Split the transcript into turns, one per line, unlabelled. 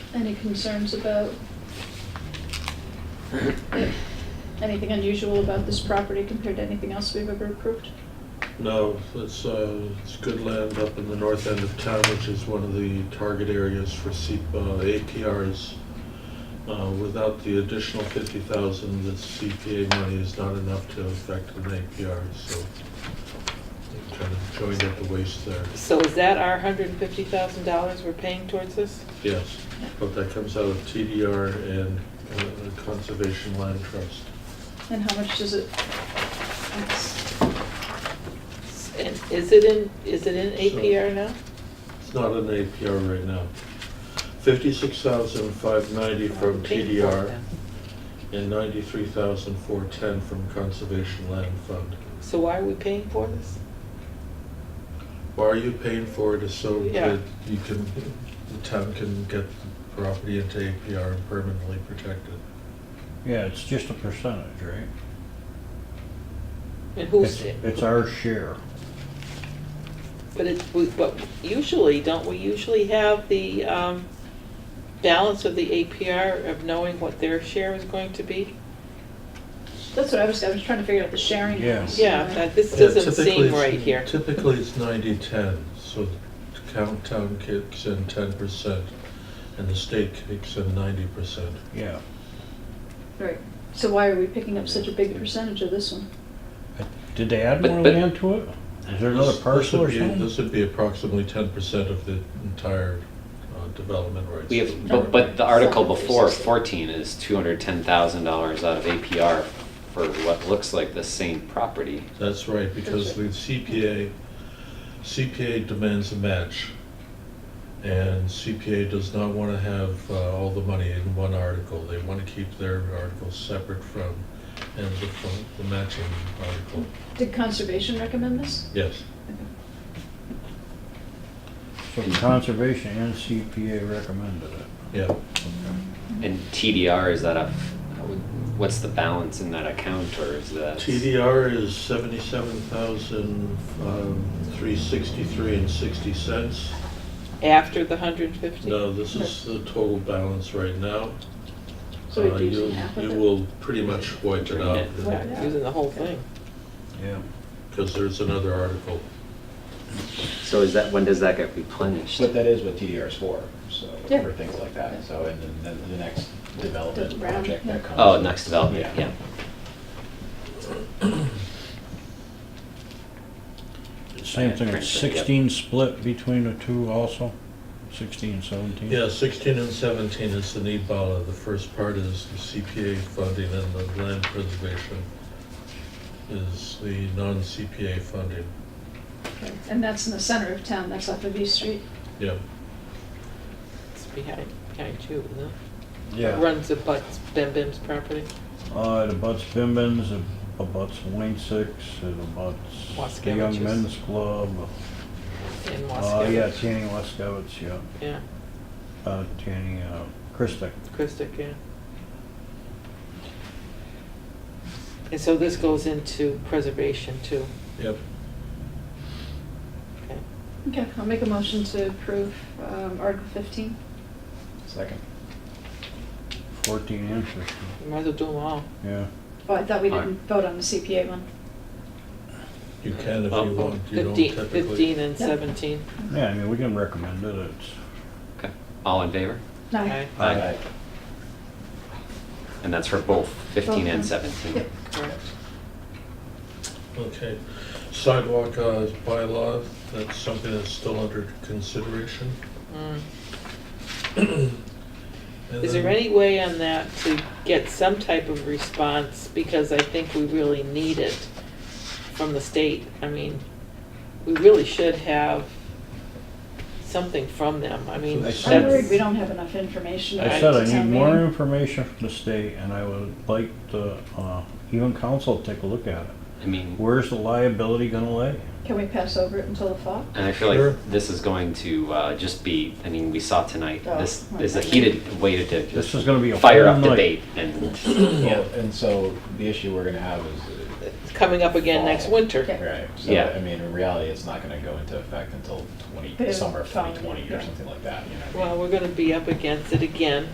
Any concerns about anything unusual about this property compared to anything else we've ever approved?
No, it's, uh, it's good land up in the north end of town, which is one of the target areas for C, uh, APRs. Uh, without the additional fifty thousand, the CPA money is not enough to affect an APR, so they kind of joined at the waist there.
So is that our hundred and fifty thousand dollars we're paying towards this?
Yes, but that comes out of TDR and uh, Conservation Land Trust.
And how much does it? it's-
And is it in, is it in APR now?
It's not an APR right now. Fifty-six thousand five ninety from TDR and ninety-three thousand four ten from Conservation Land Fund.
So why are we paying for this?
Why are you paying for it is so
Yeah.
that you can, the town can get the property into APR and permanently protect it.
Yeah, it's just a percentage, right?
And
It's,
who's,
it's our share.
but it, we- but usually, don't we usually have the, um, balance of the APR of knowing what their share is going to be?
That's what I was, I was trying to figure out the sharing.
Yeah.
piece.
Yeah, that, this
Yeah,
doesn't
typically
seem
it's-
right here.
Typically, it's ninety-ten, so the count town kicks in ten percent and the state kicks in ninety percent.
Yeah.
Right, so why are we picking up such a big percentage of this one?
Uh, Did they add
But-
more
but-
land to it? Is there
This-
another
this
parcel
would
or
be-
something?
This would be approximately ten percent of the entire uh, development rights.
We have, but, but the article before fourteen is two hundred ten thousand dollars out of APR for what looks like the same property.
That's right, because the CPA, CPA demands a match. And CPA does not want to have uh, all the money in one article. They want to keep their articles separate from, and the, from the matching article.
Did conservation recommend this?
Yes,
So conservation and CPA recommended it.
yeah.
Mm-hmm.
And TDR, is that a, what's the balance in that account or is that?
TDR is seventy-seven thousand, um, three sixty-three and sixty cents.
After the hundred and fifty?
No, this is the total balance right now.
So
Uh,
we do
you'll-
some half of
You
it?
will pretty much wipe it out.
Right.
Yeah, Using the whole thing.
Yeah.
Because there's another article.
So is that, when does that get replenished?
But that is what TDR is for, so,
Yeah.
for things like that, so, and then- then the next development
The round,
project that
yeah.
comes.
Oh, next development, yeah.
Same thing,
Correct,
it's
yep.
sixteen split between the two also? Sixteen, seventeen?
Yeah, 16 and 17 is the E NEBALA. The first part is the CPA funding and the land preservation is the non-CPA funding.
Okay. And that's in the center of town, that's off of East Street?
Yeah,
It's behind, behind you, isn't it?
Yeah.
Runs the butts, Ben Ben's property,
Uh, it abuts Bimbins, it abuts Wayne Six, it abuts the Young
Waskevicius.
Men's Club.
in
Oh, yeah,
Wasco.
Tanny Waskevich, yeah.
Yeah,
Uh, Tanny, uh, Christic.
Christic, yeah. And so this goes into preservation too,
yep.
okay.
Okay, I'll make a motion to approve um, Article 15.
Second.
Fourteen and fifteen,
You Might as well do them all.
yeah.
Oh, I thought we didn't
Aye.
vote on the CPA one.
You can if
Oh,
you
oh,
want. You don't
Fifteen,
typically.
fifteen and
Yeah.
seventeen.
Yeah, I mean, we can recommend it, it's,
Okay, all in favor?
No.
Okay,
Aye.
Aye.
And that's for both fifteen and
Both, huh?
seventeen?
correct.
Okay. Sidewalk uh, bylaw, that's something that's still under consideration.
Mm.
And
Is there
then-
any way on that to get some type of response, because I think we really need it from the state? I mean, we really should have something from them, I mean,
So I
that's.
I'm worried we don't have enough information.
I
Right.
said I
to
need
town
more
meeting.
information from the state, and I would like the, uh, even council to take a look at it.
I mean.
Where's the liability gonna lay?
Can we pass over it until the fall?
And I feel
Sure.
like this is going to uh, just be, I mean, we saw tonight,
Oh,
this
my
is a
goodness.
heated way to dip-
This is gonna be a
fire
whole
up
night.
debate and
Well, And so the issue we're gonna have is uh,
coming up again next
Fall.
winter.
Okay.
Right, so,
Yeah.
I mean, in reality, it's not gonna go into effect until twenty,
But it'll
summer of
follow
twenty twenty
you,
or
yeah.
something like that, you know what I mean?
Well, we're gonna be up against it again